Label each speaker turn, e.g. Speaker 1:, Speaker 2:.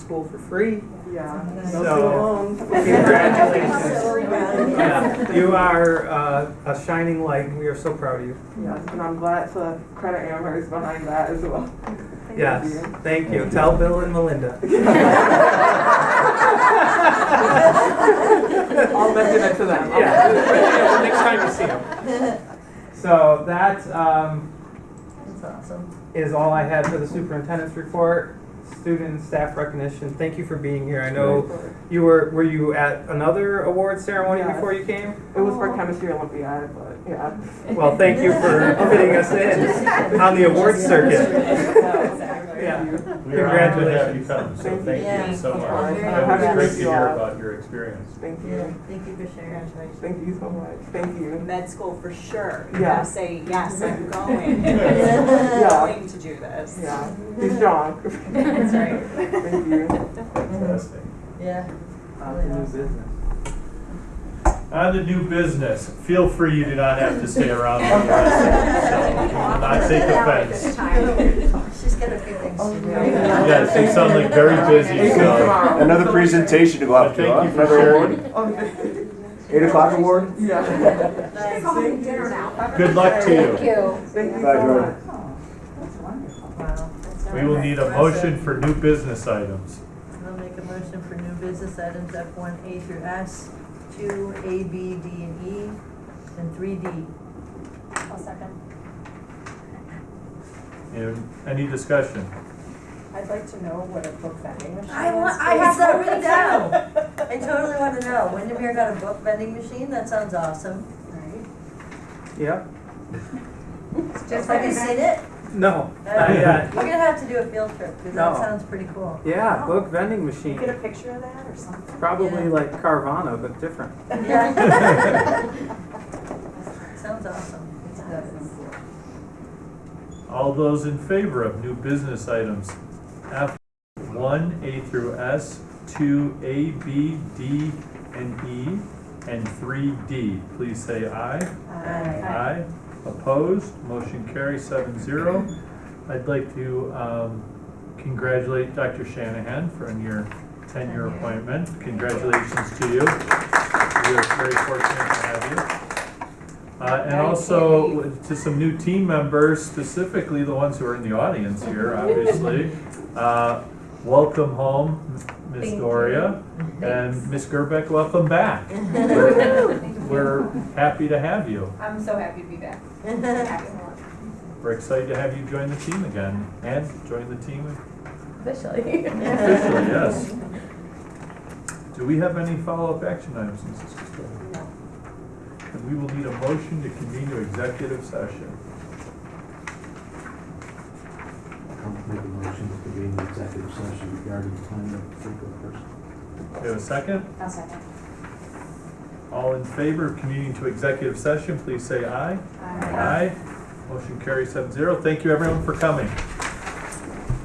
Speaker 1: school for free.
Speaker 2: Yeah.
Speaker 1: So-
Speaker 2: So.
Speaker 1: Congratulations. Yeah, You are uh, a shining light. We are so proud of you.
Speaker 2: Yes, and I'm glad to credit Amherst behind that as well.
Speaker 1: Yes, thank you. Tell Bill and Melinda.
Speaker 2: I'll mention it to them.
Speaker 1: Yeah, next time you see them. So that um,
Speaker 3: That's awesome.
Speaker 1: is all I had for the superintendent's report. Student and staff recognition, thank you for being here. I know you were, were you at another award ceremony
Speaker 2: Yes.
Speaker 1: before you came?
Speaker 2: It was for chemistry Olympiad, but yeah.
Speaker 1: Well, thank you for fitting us in on the award circuit. Yeah.
Speaker 4: We are honored to have you
Speaker 1: Congratulations.
Speaker 4: come, so
Speaker 2: Thank
Speaker 4: thank
Speaker 3: you.
Speaker 4: you so
Speaker 2: Yeah.
Speaker 4: much.
Speaker 3: Very
Speaker 4: It was
Speaker 3: happy
Speaker 4: great
Speaker 2: to
Speaker 4: to
Speaker 2: see
Speaker 4: hear
Speaker 2: all.
Speaker 4: about your experience.
Speaker 2: Thank
Speaker 3: Yeah,
Speaker 2: you.
Speaker 3: thank you for sharing.
Speaker 2: Thank you so much. Thank you.
Speaker 5: med school for sure. You
Speaker 2: Yeah.
Speaker 5: gotta say, yes, I'm going.
Speaker 3: Yeah.
Speaker 5: I'm going to do this.
Speaker 2: Yeah. Be strong.
Speaker 5: That's right.
Speaker 2: Thank you.
Speaker 4: Fantastic.
Speaker 3: Yeah.
Speaker 4: On the new business, feel free, you do not have to stay around. for the rest of it, so you will Not take offense.
Speaker 3: She's got a few things to do.
Speaker 2: yeah.
Speaker 4: Yes, you sound like very busy,
Speaker 2: Thank you
Speaker 4: so.
Speaker 2: tomorrow.
Speaker 6: Another presentation to go
Speaker 4: but
Speaker 6: up to,
Speaker 4: Thank
Speaker 6: huh?
Speaker 4: you for
Speaker 6: Another award?
Speaker 4: sharing.
Speaker 1: Oh,
Speaker 6: Eight o'clock award?
Speaker 2: Yeah.
Speaker 3: Nice.
Speaker 5: dinner now.
Speaker 4: Good luck to you.
Speaker 2: Thank you
Speaker 6: Bye,
Speaker 2: so
Speaker 6: Jordan.
Speaker 2: much.
Speaker 3: Wow.
Speaker 4: We will need a motion for new business items.
Speaker 3: I'll make a motion for new business items F one A through S, two A, B, D, and E, and three D.
Speaker 7: I'll second.
Speaker 4: And Any discussion?
Speaker 7: I'd like to know what a book vending machine is.
Speaker 3: I want, I have that
Speaker 7: please.
Speaker 3: written down. I totally wanna know. Windermere got a book vending machine? That sounds awesome.
Speaker 1: Yeah,
Speaker 3: Just like you seen it?
Speaker 1: no, not
Speaker 3: Uh,
Speaker 1: yet.
Speaker 3: We're gonna have to do a field trip, cause
Speaker 1: No.
Speaker 3: that sounds pretty cool.
Speaker 1: Yeah, book vending
Speaker 7: You Get a
Speaker 1: machine,
Speaker 7: picture of that or something?
Speaker 1: probably like Carvana, but different.
Speaker 3: Yeah. Sounds awesome. It's good.
Speaker 4: All those in favor of new business items F one, A through S, two, A, B, D, and E, and three D, please say aye. Aye. Opposed, motion carries seven zero. I'd like to, um, congratulate Dr. Shanahan for your ten-year appointment. Congratulations to you. We're very fortunate to have you. Uh, and also to some new team members, specifically the ones who are in the audience here, obviously. Uh, Welcome home, Ms.
Speaker 3: Thank
Speaker 4: Doria, and Ms. Gerbeck, welcome back. We're happy to have you.
Speaker 8: I'm so happy to be back.
Speaker 4: We're excited to have you join the team again, and join the team
Speaker 8: Officially.
Speaker 4: officially, yes. Do we have any follow-up action items, Mrs. Costello?
Speaker 7: No.
Speaker 4: And we will need a motion to convene to executive session.
Speaker 9: I'll make a motion to convene the executive session regarding the plan of frequent person.
Speaker 4: Do we have a second?
Speaker 7: I'll second.
Speaker 4: All in favor of convening to executive session, please say aye. Aye. Motion carries seven zero. Thank you everyone for coming.